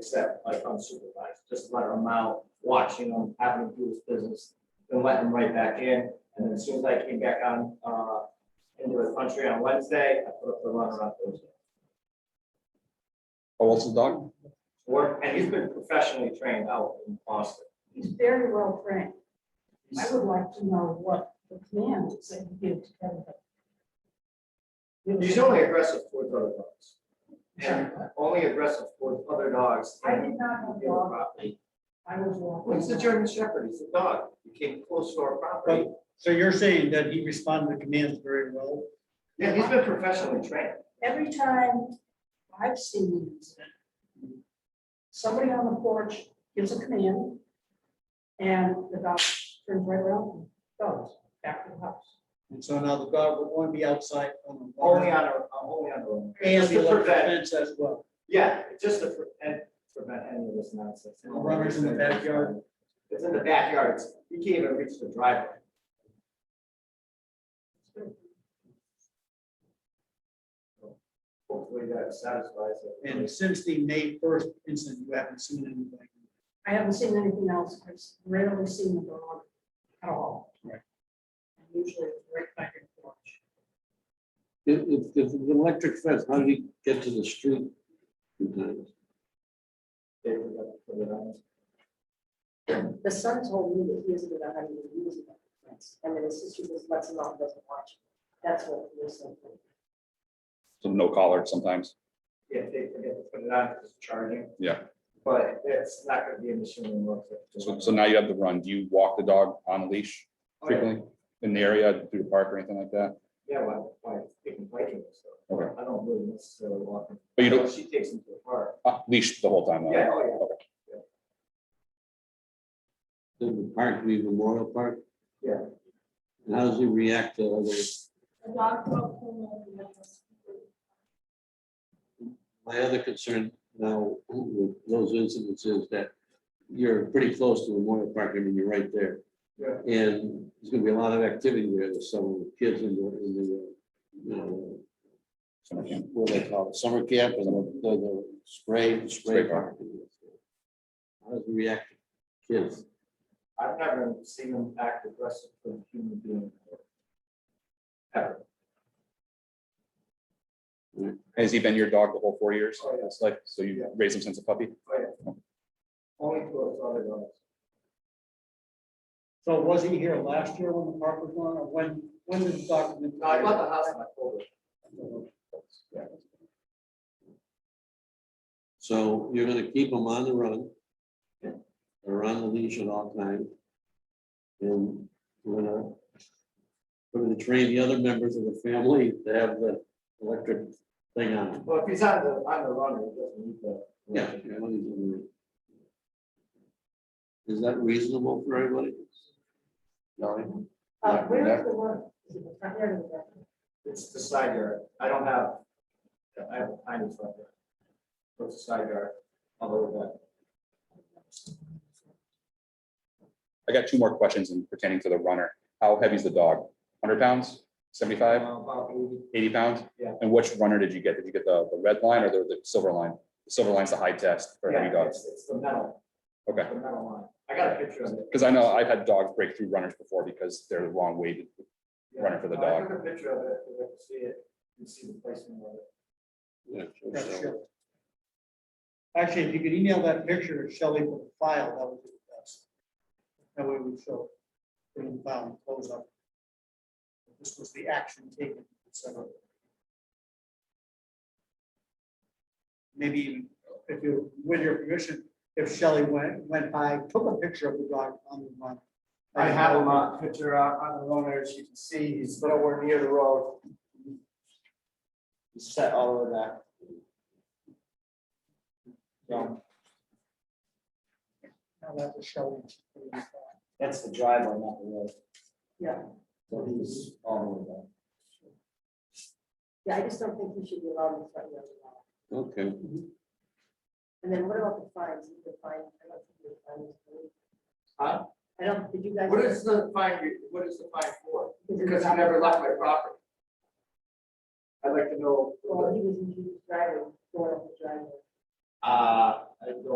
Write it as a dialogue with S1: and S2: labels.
S1: except like unsupervised, just let him out, watching him, having him do his business, then let him right back in. And then as soon as I came back on, uh, into the country on Wednesday, I put up the runner on Thursday.
S2: How old's Oh, the dog?
S1: Work, and he's been professionally trained out in Boston.
S3: He's very well trained. I
S1: He's-
S3: would like to know what the plan is that you give to Kevin.
S1: He's only aggressive towards other dogs. And only aggressive towards other dogs.
S3: I did not have
S1: and
S3: a dog.
S1: property.
S3: I was
S1: Well,
S3: walking.
S1: he's a German Shepherd, he's a dog, he came close to our property.
S4: But, so you're saying that he responded to commands very well?
S1: Yeah, he's been professionally trained.
S3: Every time I've seen an incident, somebody on the porch gives a command and the dog turns right around, and goes back to the house.
S4: And so now the dog would want to be outside on the
S1: Only
S4: wall.
S1: on our, uh, only on our. own.
S4: And
S1: Just
S4: the
S1: to
S4: electric
S1: prevent,
S4: fence as well.
S1: yeah, just to prevent, prevent any of this nonsense.
S4: And the runners in the backyard.
S1: It's in the backyard, It's- you can't even reach the driveway. Hopefully that satisfies it.
S4: And since the May first incident, you haven't seen anybody.
S3: I haven't seen anything else. I've rarely seen the dog at all.
S4: Right.
S3: And Usually it's right back and forth.
S5: If, if, if the electric fence, how did he get to the street? in time?
S1: They forgot to put it on.
S6: The son told me that he isn't about having to use it. And then his sister just lets him off, doesn't watch. it. That's what he was saying.
S2: Some no collar sometimes.
S1: Yeah, they forget to put it on, 'cause it's charging.
S2: Yeah.
S1: But it's not gonna be an issue anymore.
S2: So, so now you have the run. Do you walk the dog on a leash
S1: Oh, yeah.
S2: frequently in the area through the park or anything like that?
S1: Yeah, well, like, taking biking and stuff.
S2: Okay.
S1: I don't really necessarily walk. him.
S2: But you don't-
S1: She takes him to the park.
S2: Ah, Leash the whole time? though.
S1: Yeah, oh,
S5: Did the park, be Memorial Park?
S1: yeah, yeah.
S5: And how does he react to other
S3: The dog will pull over the house.
S5: My other concern now with those incidents is that you're pretty close to Memorial Park, I mean, you're right there.
S1: Yeah.
S5: And there's gonna be a lot of activity there this summer with kids in the, in the, you know,
S2: Summer camp.
S5: what do they call it, summer camp and the, the- the spray, spray
S2: Spray park.
S5: park. How does he react to kids?
S1: I've never seen him act aggressive with a human being. Ever.
S2: Has he been your dog the whole four years?
S1: Oh, yeah.
S2: It's like, so
S1: Yeah.
S2: you raised him since a puppy?
S1: Oh, yeah. Only towards other dogs.
S4: So was he here last year when the park was on, or when, when did the dog?
S1: No, I bought the house and I told her. Yeah.
S5: So you're gonna keep them on the run.
S1: Yeah.
S5: Or on the leash at all times. And we're gonna. We're gonna train the other members of the family to have the electric thing on.
S1: Well, if he's on the, on the run, he doesn't need that.
S5: Yeah. Is that reasonable for everybody? No.
S6: Uh, where is the one? Is it the front yard or the back?
S1: It's the side yard. I don't have, I have a tiny front yard. But It's a side yard, although that.
S2: I got two more questions in pertaining to the runner. How heavy is the dog? Hundred pounds, seventy-five,
S1: uh, About eighty.
S2: eighty pounds?
S1: Yeah.
S2: And which runner did you get? Did you get the, the red line or the, the silver line? The silver line's the high test for
S1: Yeah,
S2: heavy dogs.
S1: it's- It's the metal.
S2: Okay.
S1: The metal line. I got a picture of it.
S2: Because I know I've had dogs break through runners before because they're the wrong weighted.
S1: Yeah.
S2: running for the
S1: No, I
S2: dog.
S1: took a picture of it, if I could see it, you can see the placement of it.
S5: Yeah.
S4: That's Shelley. Actually, if you could email that picture to Shelley with the file, that would be the best. That way we show, bring the file and close up. This was the action taken, so. Maybe even if you, with your permission, if Shelley went, went by, took a picture of the dog on the run.
S1: I have him on picture on on the loaner, as you can see, he's nowhere near the road. He's set all over that. So,
S4: Now that was Shelley.
S1: that's the driveway, not the road.
S6: Yeah.
S1: So he's all over that.
S6: Yeah, I just don't think he should be allowed in the front yard at all.
S5: Okay,
S6: And then what about the fines? Is the fine, I don't think the fine is paid.
S1: Huh?
S6: I don't, did you guys?
S1: What is the fine, you- what is the fine for?
S6: Because
S1: Because he never left my property. I'd like to know,
S6: Well, he was in his driveway, going up the driveway.
S1: uh, I don't